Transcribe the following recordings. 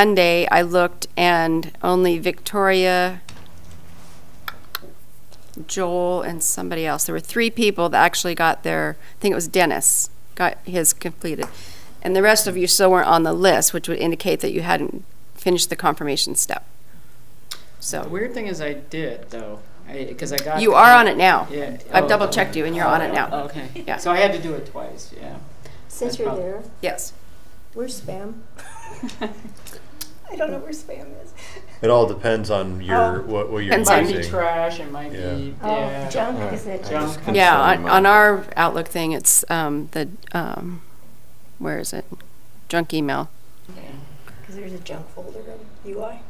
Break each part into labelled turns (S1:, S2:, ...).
S1: Monday, I looked and only Victoria, Joel, and somebody else, there were three people that actually got their, I think it was Dennis, got his completed. And the rest of you still weren't on the list, which would indicate that you hadn't finished the confirmation step.
S2: The
S1: So
S2: weird thing is I did though, because I got.
S1: you are on it now.
S2: Yeah.
S1: I've
S2: oh,
S1: double checked you and you're on it
S2: oh,
S1: now.
S2: Okay.
S1: Yeah.
S2: So I had to do it twice, yeah. That's
S3: Since you're
S2: prob-
S3: there,
S1: Yes.
S3: where's spam? I don't know where spam is.
S4: It all depends on your
S3: Oh.
S4: what, what you're
S1: Depends on-
S2: Might be
S4: using.
S2: trash, it might
S4: Yeah.
S2: be,
S3: Oh,
S2: yeah.
S3: junk is it?
S2: Junk.
S5: just confirm
S1: Yeah, on, on
S5: mine.
S1: our Outlook thing, it's um, the, um, where is it? Junk email.
S3: Because there's a junk folder in UI.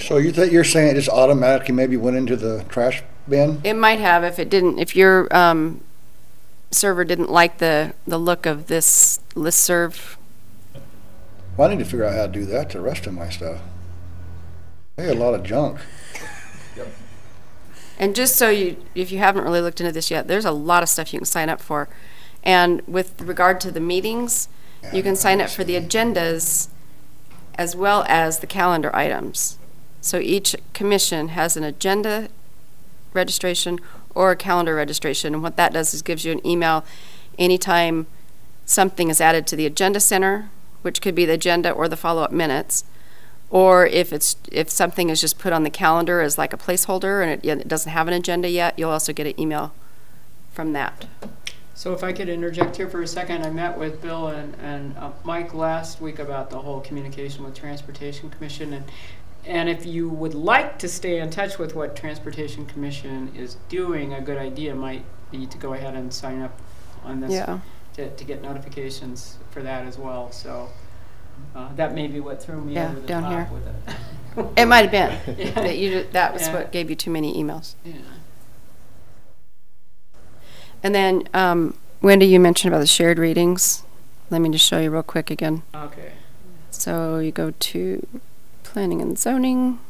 S6: So you think you're saying it just automatically maybe went into the trash bin?
S1: It might have if it didn't, if your um, server didn't like the, the look of this listserv.
S6: Well, I need to figure out how to do that to the rest of my stuff. I got a lot of junk.
S1: And just so you, if you haven't really looked into this yet, there's a lot of stuff you can sign up for. And with regard to the meetings, you can sign up for the agendas as well as the calendar items. So each commission has an agenda registration or a calendar registration. And what that does is gives you an email anytime something is added to the agenda center, which could be the agenda or the follow-up minutes. Or if it's, if something is just put on the calendar as like a placeholder and it, yet it doesn't have an agenda yet, you'll also get an email from that.
S2: So if I could interject here for a second, I met with Bill and, and uh, Mike last week about the whole communication with Transportation Commission and and if you would like to stay in touch with what Transportation Commission is doing, a good idea might be to go ahead and sign up on this
S1: Yeah.
S2: to, to get notifications for that as well. So uh, that may be what threw me
S1: Yeah,
S2: over the
S1: down
S2: top
S1: here.
S2: with it.
S1: It might have been,
S2: Yeah.
S1: that you, that was
S2: Yeah.
S1: what gave you too many emails.
S2: Yeah.
S1: And then, um, Wendy, you mentioned about the shared readings. Let me just show you real quick again.
S2: Okay.
S1: So you go to planning and zoning,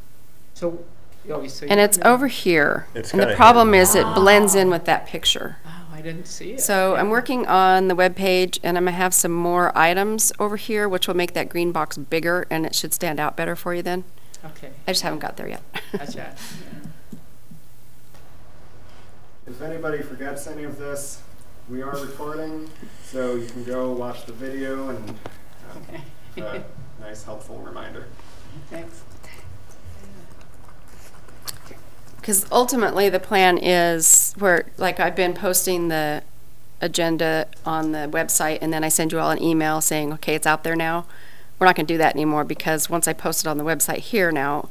S2: So, oh, so
S1: and
S2: you-
S1: it's over here.
S4: It's
S1: And the
S4: kinda
S1: problem
S4: hidden.
S1: is it blends in with that picture.
S2: Oh, I didn't see it.
S1: So I'm working on the webpage, and I'm gonna have some more items over here, which will make that green box bigger, and it should stand out better for you then.
S2: Okay.
S1: I just haven't got there yet.
S2: Gotcha.
S7: If anybody forgets any of this, we are recording, so you can go watch the video and uh,
S2: Okay.
S7: a nice helpful reminder.
S2: Thanks.
S1: Because ultimately, the plan is where, like, I've been posting the agenda on the website, and then I send you all an email saying, okay, it's out there now. We're not gonna do that anymore, because once I post it on the website here now,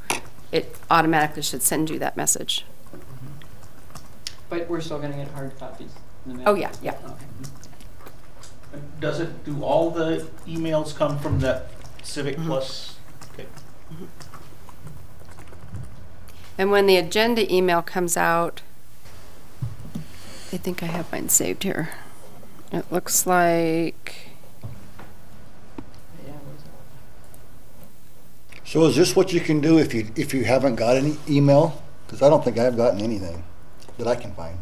S1: it automatically should send you that message.
S2: But we're still gonna get hard copies. in the mail.
S1: Oh, yeah, yeah.
S2: Okay.
S8: Does it, do all the emails come from that Civic Plus? Okay.
S1: And when the agenda email comes out, I think I have mine saved here. It looks like,
S2: Yeah, where's it?
S6: So is this what you can do if you, if you haven't got any email? Because I don't think I've gotten anything that I can find.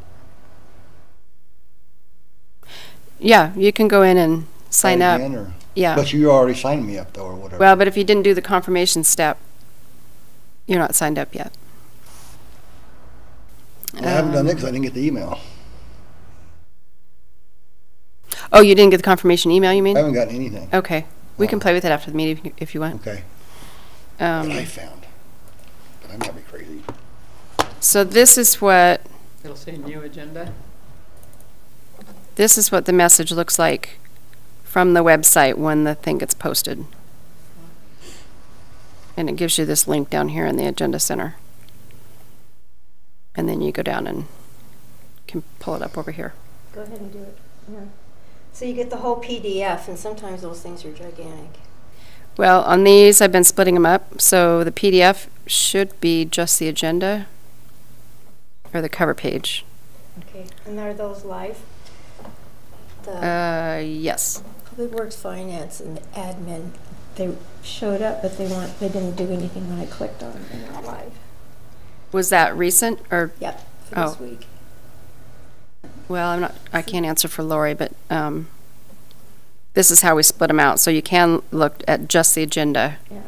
S1: yeah, you can go in and sign up.
S6: Again, or-
S1: Yeah.
S6: But you already signed me up though, or whatever.
S1: Well, but if you didn't do the confirmation step, you're not signed up yet.
S6: I haven't done it because I didn't get the email.
S1: Oh, you didn't get the confirmation email, you
S6: I
S1: mean?
S6: haven't gotten anything.
S1: Okay. We can play with it after the meeting if you- if you want.
S6: Okay, that I
S1: Um,
S6: found. But I might be crazy.
S1: So this is what,
S2: It'll say new agenda.
S1: this is what the message looks like from the website when the thing gets posted. And it gives you this link down here in the Agenda Center. And then you go down and can pull it up over here.
S3: Go ahead and do it. Yeah. So you get the whole PDF, and sometimes those things are gigantic.
S1: Well, on these, I've been splitting them up, so the PDF should be just the agenda or the cover page.
S3: Okay. And are those live? The
S1: Uh, yes.
S3: Public Works Finance and Admin, they showed up, but they weren't. They didn't do anything when I clicked on them. They're not live.
S1: Was that recent or,
S3: Yep. For this
S1: Oh.
S3: week.
S1: well, I'm not, I can't answer for Lori, but, um, this is how we split them out, so you can look at just the agenda.
S3: Yeah.